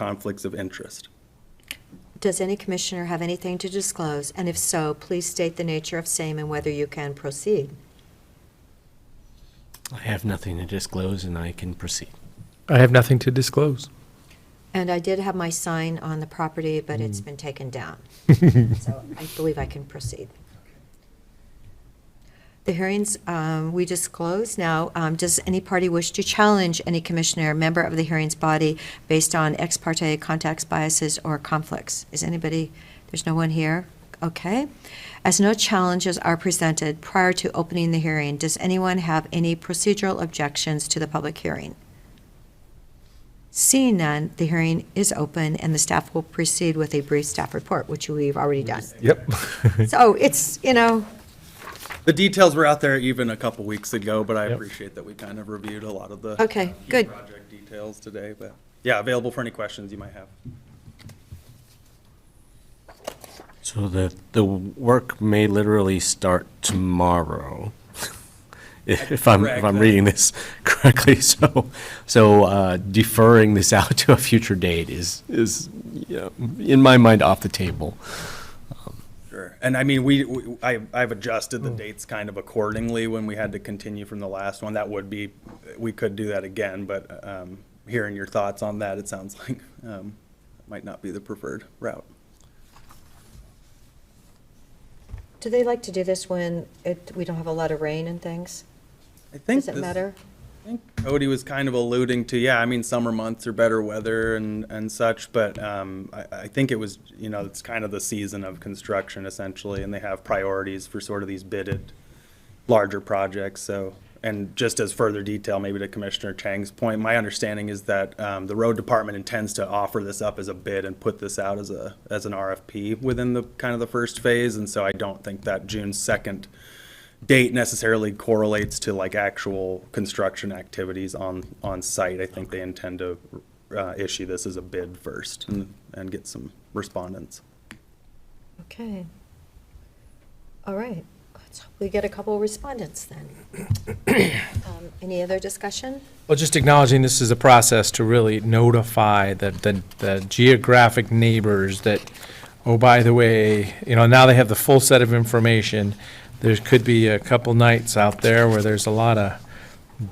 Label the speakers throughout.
Speaker 1: conflicts of interest.
Speaker 2: Does any commissioner have anything to disclose? And if so, please state the nature of same and whether you can proceed.
Speaker 3: I have nothing to disclose and I can proceed.
Speaker 4: I have nothing to disclose.
Speaker 2: And I did have my sign on the property, but it's been taken down. So I believe I can proceed. The hearings, um, we just closed now. Um, Does any party wish to challenge any commissioner, member of the hearings body, based on ex parte contacts, biases, or conflicts? Is anybody, there's no one here? Okay. As no challenges are presented prior to opening the hearing, does anyone have any procedural objections to the public hearing? Seeing none, the hearing is open, and the staff will proceed with a brief staff report, which we've already done.
Speaker 4: Yep.
Speaker 2: So it's, you know,
Speaker 1: The details were out there even a couple weeks ago, but I
Speaker 4: Yep.
Speaker 1: appreciate that we kind of reviewed a lot of the. uh,
Speaker 2: Okay,
Speaker 1: key
Speaker 2: good.
Speaker 1: Project details today, but yeah, available for any questions you might have.
Speaker 3: So the, the work may literally start tomorrow, if I'm, if I'm
Speaker 1: Correct.
Speaker 3: reading this correctly. So, so uh, deferring this out to a future date is, is, you know, in my mind, off the table.
Speaker 1: Sure. And I mean, we, we- I, I've adjusted the dates kind of accordingly when we had to continue from the last one. That would be, we could do that again, but, um, hearing your thoughts on that, it sounds like, um, might not be the preferred route.
Speaker 2: do they like to do this when it, we don't have a lot of rain and things?
Speaker 1: I think
Speaker 2: Does it
Speaker 1: this-
Speaker 2: matter?
Speaker 1: I think Cody was kind of alluding to, yeah, I mean, summer months are better weather and, and such, but, um, I, I think it was, you know, it's kind of the season of construction essentially, and they have priorities for sort of these bidded larger projects, so. And just as further detail, maybe to Commissioner Chang's point, my understanding is that, um, the road department intends to offer this up as a bid and put this out as a, as an RFP within the, kind of the first phase, and so I don't think that June second date necessarily correlates to like actual construction activities on, on site. I think they intend to uh, issue this as a bid first and,
Speaker 2: Mm-hmm.
Speaker 1: and get some respondents.
Speaker 2: Okay. All right, let's hope we get a couple of respondents then. Um, Any other discussion?
Speaker 4: Well, just acknowledging this is a process to really notify the, the, the geographic neighbors that, oh, by the way, you know, now they have the full set of information. There could be a couple nights out there where there's a lot of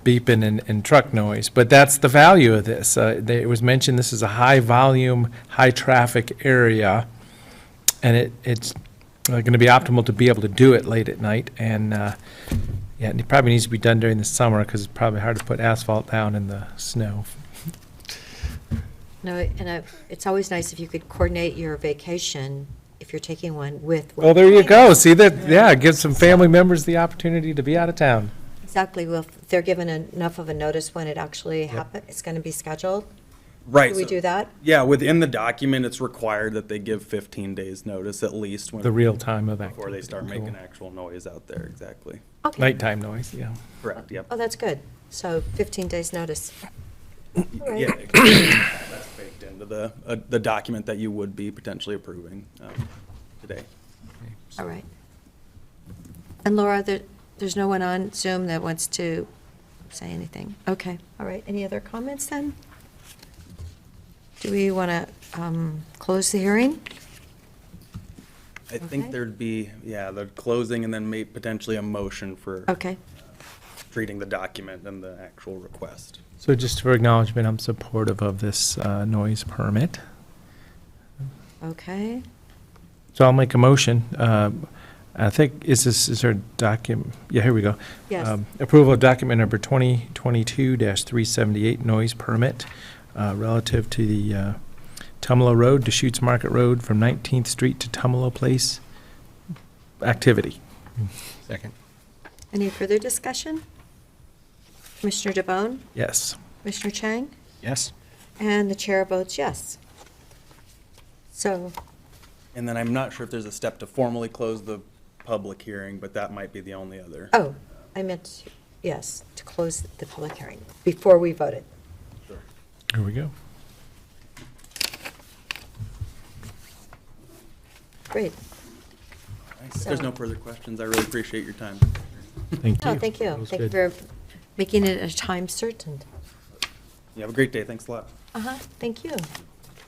Speaker 4: beeping and, and truck noise, but that's the value of this. Uh, they- it was mentioned this is a high-volume, high-traffic area, and it, it's going to be optimal to be able to do it late at night, and, uh, yeah, and it probably needs to be done during the summer because it's probably hard to put asphalt down in the snow.
Speaker 2: No, and I- it's always nice if you could coordinate your vacation, if you're taking one, with. what
Speaker 4: Well, there
Speaker 2: you're
Speaker 4: you
Speaker 2: planning.
Speaker 4: go. See that? Yeah, give some family members the opportunity to be out of town.
Speaker 2: Exactly, well, if they're given enough of a notice when it actually happens, it's going to be scheduled.
Speaker 1: Right.
Speaker 2: Do we
Speaker 1: so-
Speaker 2: do that?
Speaker 1: Yeah, within the document, it's required that they give 15 days notice at least when.
Speaker 4: The real time of that.
Speaker 1: Before they start making actual noise out there, exactly.
Speaker 2: Okay.
Speaker 4: Nighttime noise, yeah.
Speaker 1: Correct, yep.
Speaker 2: Oh, that's good. So 15 days' notice. All right.
Speaker 1: Yeah, that's baked into the, uh, the document that you would be potentially approving um, today.
Speaker 2: All right. And Laura, there, there's no one on Zoom that wants to say anything? Okay, all right. Any other comments then? Do we want to close the hearing?
Speaker 1: I
Speaker 2: Okay.
Speaker 1: think there'd be, yeah, the closing and then may, potentially a motion for.
Speaker 2: Okay,
Speaker 1: treating the document and the actual request.
Speaker 4: So just for acknowledgement, I'm supportive of this uh, noise permit.
Speaker 2: okay.
Speaker 4: So I'll make a motion. Um, I think, is this, is there a document? Yeah, here we go.
Speaker 2: Yes.
Speaker 4: Um, Approval of document number 2022-378 noise permit uh, relative to the uh, Tumalo Road, Deschutes Market Road from 19th Street to Tumalo Place activity.
Speaker 3: Second.
Speaker 2: Any further discussion? Commissioner DeBonne,
Speaker 4: Yes.
Speaker 2: Commissioner Chang,
Speaker 3: Yes?
Speaker 2: and the chair votes yes. So
Speaker 1: And then I'm not sure if there's a step to formally close the public hearing, but that might be the only other.
Speaker 2: Oh, I meant, yes, to close the public hearing before we voted.
Speaker 4: Here we go.
Speaker 2: Great.
Speaker 1: If there's no further questions, I really appreciate your time.
Speaker 4: Thank you.
Speaker 2: No, Oh, thank
Speaker 4: That
Speaker 2: you.
Speaker 4: was
Speaker 2: Thank you
Speaker 4: good.
Speaker 2: for making it a time certain.
Speaker 1: You have a great day, thanks a lot.
Speaker 2: Uh-huh, thank you.